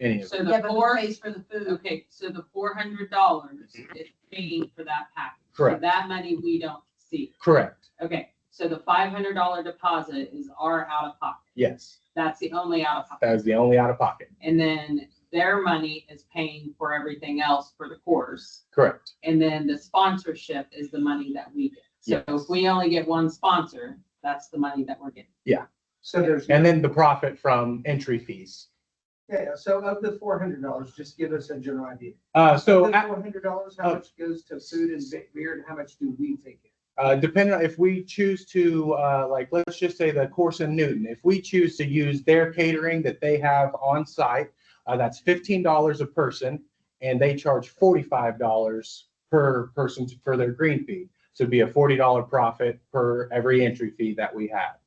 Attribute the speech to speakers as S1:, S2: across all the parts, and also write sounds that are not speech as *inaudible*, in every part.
S1: any of it.
S2: So
S3: Yeah,
S2: the
S3: but who
S2: four,
S3: pays for the food?
S2: okay, so the four hundred dollars is paying for that package. So
S1: Mm-hmm. Correct.
S2: That money we don't see.
S1: Correct,
S2: Okay, so the five hundred dollar deposit is our out of pocket.
S1: yes.
S2: That's the only out of
S1: That
S2: pocket.
S1: is the only out of pocket,
S2: And then their money is paying for everything else for the course.
S1: correct.
S2: And then the sponsorship is the money that we get. So
S1: Yes.
S2: if we only get one sponsor, that's the money that we're getting.
S4: So there's,
S1: And then the profit from entry fees.
S4: yeah, so of the four hundred dollars, just give us a general idea.
S1: Uh, so
S4: Of
S1: at-
S4: The four hundred dollars, how
S1: uh,
S4: much goes to food and be- beer and how much do we take in?
S1: Uh, depending on if we choose to, uh, like, let's just say the course in Newton, if we choose to use their catering that they have on site, uh, that's fifteen dollars a person and they charge forty-five dollars per person to- for their green fee. So it'd be a forty dollar profit per every entry fee that we have.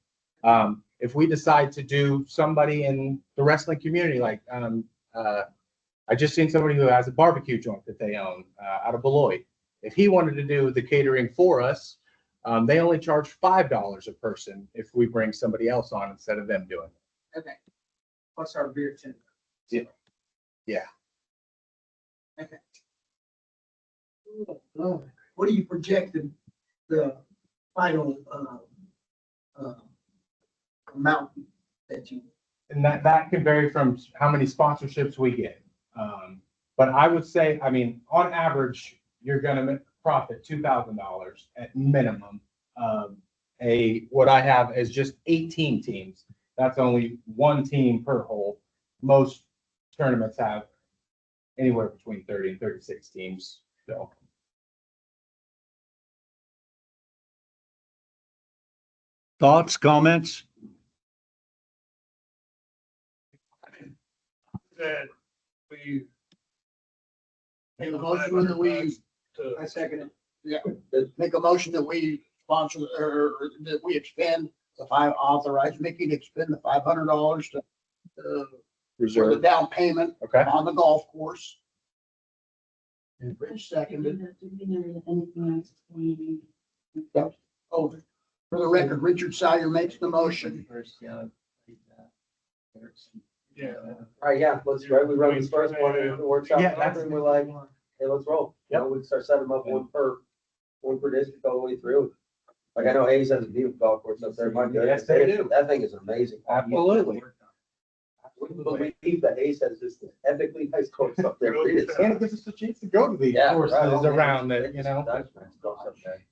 S1: Um, if we decide to do somebody in the wrestling community, like, um, uh, I just seen somebody who has a barbecue joint that they own, uh, out of Beloit. If he wanted to do the catering for us, um, they only charge five dollars a person if we bring somebody else on instead of them doing it.
S2: Okay,
S4: Plus our beer tin.
S1: Yeah. Yeah.
S2: Okay.
S4: Oh, What do you project the, the final, uh, uh, amount that you?
S1: And that, that can vary from how many sponsorships we get. Um, but I would say, I mean, on average, you're gonna ma- profit two thousand dollars at minimum. Um, a, what I have is just eighteen teams. That's only one team per hole. Most tournaments have anywhere between thirty and thirty-six teams, so.
S5: Thoughts, comments?
S6: that we.
S7: Make a motion that we,
S6: To,
S4: I second it.
S7: Uh, make a motion that we sponsor, or or that we expend the five, authorize Mickey to expend the five hundred dollars to, uh, for the down payment
S1: Okay,
S7: on the golf course. And Rich seconded, oh, for the record, Richard Sire makes the motion.
S6: yeah,
S8: All right, yeah, let's, right, we run this first one and if it works out,
S1: Yeah, that's-
S8: and we're like, hey, let's roll. You know, we start setting them up one per, one per district all the way through. Like I know Hayes has a beautiful golf course up there, my goodness.
S1: Yes, they do.
S8: That thing is amazing.
S1: absolutely.
S8: We can believe that Hayes has this epically nice course up
S1: *laughs*
S8: there.
S6: Really?
S8: It is-
S1: And it gives us a chance to go to the
S8: Yeah,
S1: courses
S8: right.
S1: around that, you know? Uh, Ah,
S8: That's nice golf up there.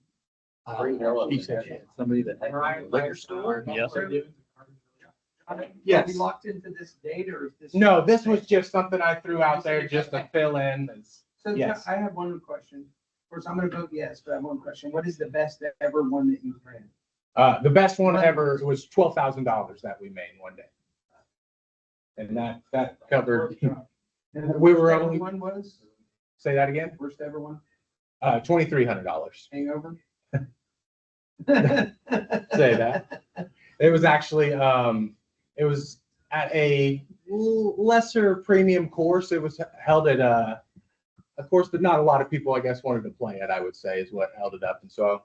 S8: Free hell up there.
S7: Somebody that.
S4: Liquor store?
S5: Yes.
S1: Yes.
S4: Are we locked into this date or is this?
S1: No, this was just something I threw out there just to fill in. It's-
S4: So Jeff,
S1: Yes.
S4: I have one question. First, I'm gonna vote yes, but I have one question. What is the best ever one that you've ran?
S1: Uh, the best one ever was twelve thousand dollars that we made one day. And that, that covered,
S4: And the
S1: We were
S4: worst ever
S1: only-
S4: One was,
S1: say that again,
S4: worst ever one,
S1: uh, twenty-three hundred dollars.
S4: hangover?
S1: Say that. It was actually, um, it was at a l- lesser premium course. It was held at a, a course that not a lot of people, I guess, wanted to play at, I would say, is what held it up. And so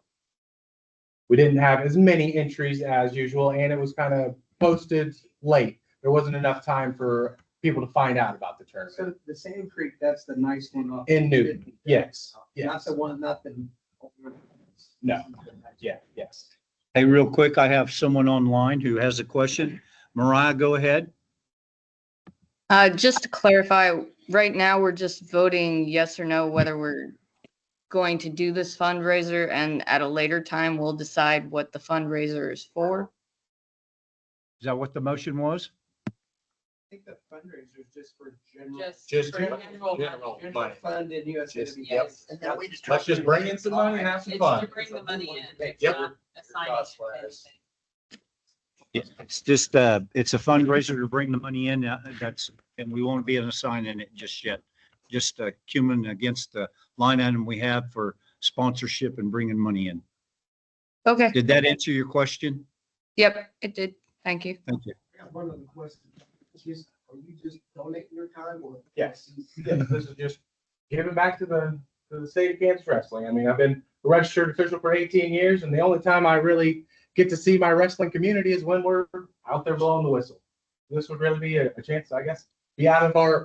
S1: we didn't have as many entries as usual, and it was kind of posted late. There wasn't enough time for people to find out about the tournament.
S4: So the Sand Creek, that's the nice one off.
S1: In Newton, yes,
S4: Not
S1: yes,
S4: the one, not the.
S1: No. yeah, yes.
S5: Hey, real quick, I have someone online who has a question. Mariah, go ahead.
S9: Uh, just to clarify, right now, we're just voting yes or no whether we're going to do this fundraiser and at a later time, we'll decide what the fundraiser is for.
S5: Is that what the motion was?
S4: I think the fundraiser is just for general.
S2: just.
S1: Just
S2: for
S1: general-
S2: general
S1: general
S2: money.
S4: General fund in USWB.
S2: yep.
S4: Yes.
S7: And now we just.
S1: Let's just bring in some money and have some
S2: It's
S1: fun.
S2: to bring the money in, it's
S1: Yep.
S2: not assigning
S8: Cost
S2: it to
S8: wise.
S2: anything.
S5: It's just, uh, it's a fundraiser to bring the money in. uh, That's, and we won't be assigning it just yet. Just uh, cumin against the line item we have for sponsorship and bringing money in.
S9: Okay,
S5: Did that answer your question?
S9: yep, it did. Thank you.
S5: Thank you.
S4: I got one other question. Just, are you just donating your time or?
S1: Yes. Yes, this is just giving back to the, to the state of Kansas wrestling. I mean, I've been a registered official for eighteen years and the only time I really get to see my wrestling community is when we're out there blowing the whistle. This would really be a, a chance, I guess, be out of our,